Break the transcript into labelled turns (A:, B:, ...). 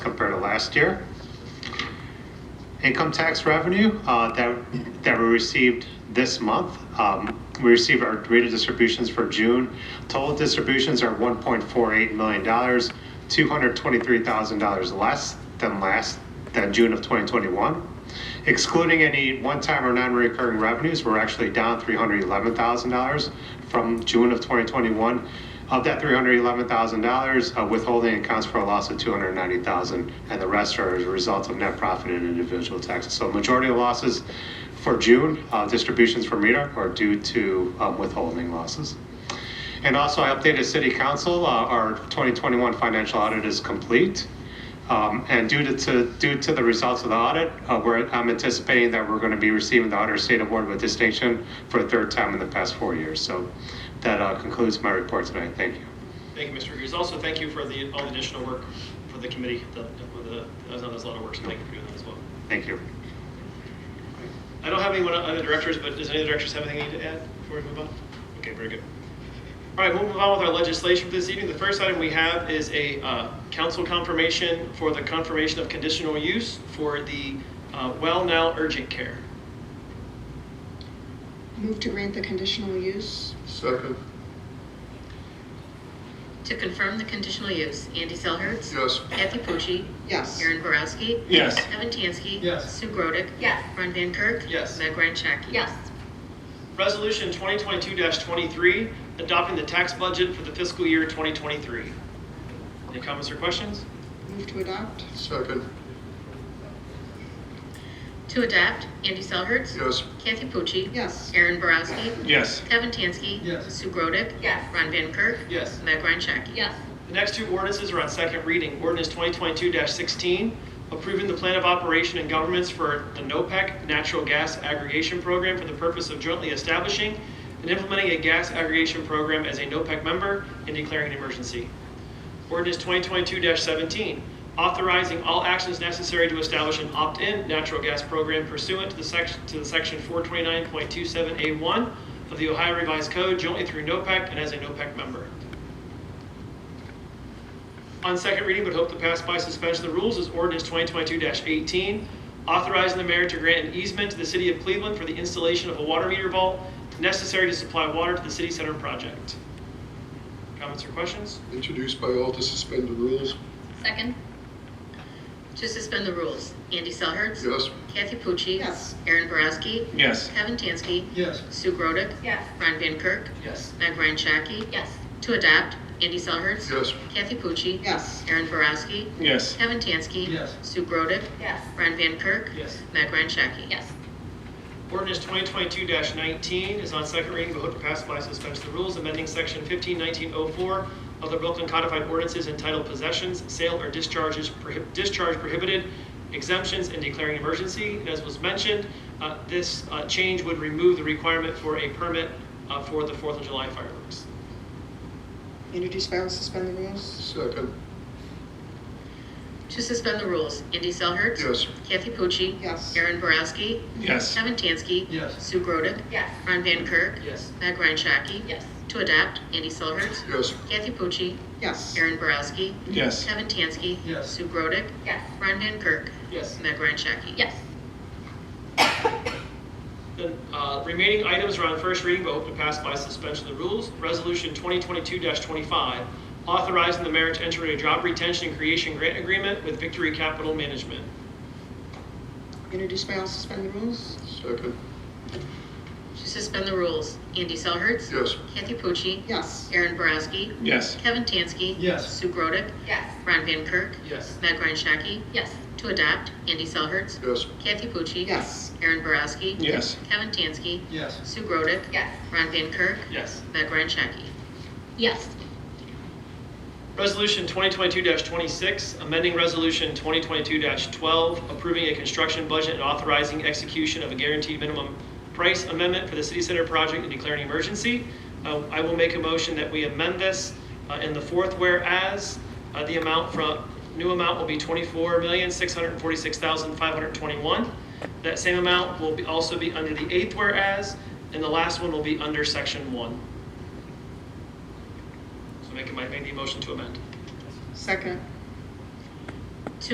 A: last year. Income tax revenue uh, that that we received this month, um, we received our rate of distributions for June. Total distributions are $1.48 million, $223,000 less than last, than June of 2021. Excluding any one-time or non-recurring revenues, we're actually down $311,000 from June of 2021. Of that $311,000, uh, withholding accounts for a loss of $290,000, and the rest are as a result of net profit and individual taxes. So majority of losses for June, uh, distributions from RETA are due to um, withholding losses. And also, I updated City Council, uh, our 2021 financial audit is complete. Um, And due to- to, due to the results of the audit, uh, we're, I'm anticipating that we're going to be receiving the Honor State Award with distinction for the third time in the past four years. So that uh, concludes my report tonight. Thank you.
B: Thank you, Mr. Hughes. Also, thank you for the, all the additional work for the committee, that, that- that- that was- that was a lot of work, so thank you for doing that as well.
A: Thank you.
B: I don't have anyone on the directors, but does any of the directors have anything they need to add before we move on? Okay, very good. All right, we'll move on with our legislation for this evening. The first item we have is a uh, council confirmation for the confirmation of conditional use for the uh, Well Now Urgent Care.
C: Move to grant the conditional use?
D: Second,
E: To confirm the conditional use, Andy Selhertz.
D: yes.
E: Kathy Pucci.
C: Yes.
E: Aaron Borowski.
B: Yes.
E: Evan Tansky.
B: Yes.
E: Sue Grodick.
F: Yes.
E: Ron Van Kirk.
B: Yes.
E: Meg Ryan Shaki.
F: Yes.
B: Resolution 2022-23, adopting the tax budget for the fiscal year 2023. Any comments or questions?
C: Move to adopt?
D: Second,
E: To adopt, Andy Selhertz.
D: yes.
E: Kathy Pucci.
C: Yes.
E: Aaron Borowski.
B: Yes.
E: Evan Tansky.
B: Yes.
E: Sue Grodick.
F: Yes.
E: Ron Van Kirk.
B: Yes.
E: Meg Ryan Shaki.
F: Yes.
B: The next two ordinances are on second reading. Ordinance 2022-16, approving the plan of operation and governments for the NOPEC E Natural Gas Aggregation Program for the purpose of jointly establishing and implementing a gas aggregation program as a NOPEC E member and declaring an emergency. Ordinance 2022-17, authorizing all actions necessary to establish an opt-in natural gas program pursuant to the section, to the section 429.27A1 of the Ohio Revised Code jointly through NOPEC E and as a NOPEC member. On second reading, but hope to pass by suspension of the rules, is ordinance 2022-18, authorizing the mayor to grant an easement to the city of Cleveland for the installation of a water meter vault necessary to supply water to the city center project. Comments or questions?
D: Introduced by all to suspend the rules,
F: Second.
E: To suspend the rules, Andy Selhertz.
D: yes.
E: Kathy Pucci.
C: Yes.
E: Aaron Borowski.
B: Yes.
E: Evan Tansky.
B: Yes.
E: Sue Grodick.
F: Yes.
E: Ron Van Kirk.
B: Yes.
E: Meg Ryan Shaki.
F: Yes.
E: To adopt, Andy Selhertz.
D: Yes.
E: Kathy Pucci.
C: Yes.
E: Aaron Borowski.
B: Yes.
E: Evan Tansky.
B: Yes.
E: Sue Grodick.
F: Yes.
E: Ron Van Kirk.
B: Yes.
E: Meg Ryan Shaki.
F: Yes.
B: Ordinance 2022-19 is on second reading, but hope to pass by suspension of the rules, amending section 151904 of the Brooklyn Codified Ordinances entitled Possessions, Sale, or Discharges, Prohib- Discharge Prohibited, Exemptions, and declaring emergency. And as was mentioned, uh, this uh, change would remove the requirement for a permit uh, for the Fourth of July fireworks.
C: Introduce by all, suspend the rules?
D: Second,
E: To suspend the rules, Andy Selhertz.
D: yes.
E: Kathy Pucci.
C: Yes.
E: Aaron Borowski.
B: Yes.
E: Kevin Tansky.
B: Yes.
E: Sue Grodick.
F: Yes.
E: Ron Van Kirk.
B: Yes.
E: Meg Ryan Shaki.
F: Yes.
E: To adopt, Andy Selhertz.
D: Yes.
E: Kathy Pucci.
C: Yes.
E: Aaron Borowski.
B: Yes.
E: Kevin Tansky.
B: Yes.
E: Sue Grodick.
F: Yes.
E: Ron Van Kirk.
B: Yes.
E: Meg Ryan Shaki.
F: Yes.
B: The uh, remaining items are on first reading, but hope to pass by suspension of the rules. Resolution 2022-25, authorizing the mayor to enter a job retention and creation grant agreement with Victory Capital Management.
C: Introduce by all, suspend the rules?
D: Second,
E: To suspend the rules, Andy Selhertz.
D: yes.
E: Kathy Pucci.
C: Yes.
E: Aaron Borowski.
B: Yes.
E: Kevin Tansky.
B: Yes.
E: Sue Grodick.
F: Yes.
E: Ron Van Kirk.
B: Yes.
E: Meg Ryan Shaki.
F: Yes.
E: To adopt, Andy Selhertz.
D: Yes.
E: Kathy Pucci.
C: Yes.
E: Aaron Borowski.
B: Yes.
E: Kevin Tansky.
B: Yes.
E: Sue Grodick.
F: Yes.
E: Ron Van Kirk.
B: Yes.
E: Meg Ryan Shaki.
F: Yes.
B: Resolution 2022-26, amending Resolution 2022-12, approving a construction budget and authorizing execution of a guaranteed minimum price amendment for the city center project and declaring emergency. Uh, I will make a motion that we amend this uh, in the fourth whereas, uh, the amount from, new amount will be $24,646,521. That same amount will be- also be under the eighth whereas, and the last one will be under Section 1. So make, make the motion to amend.
C: Second.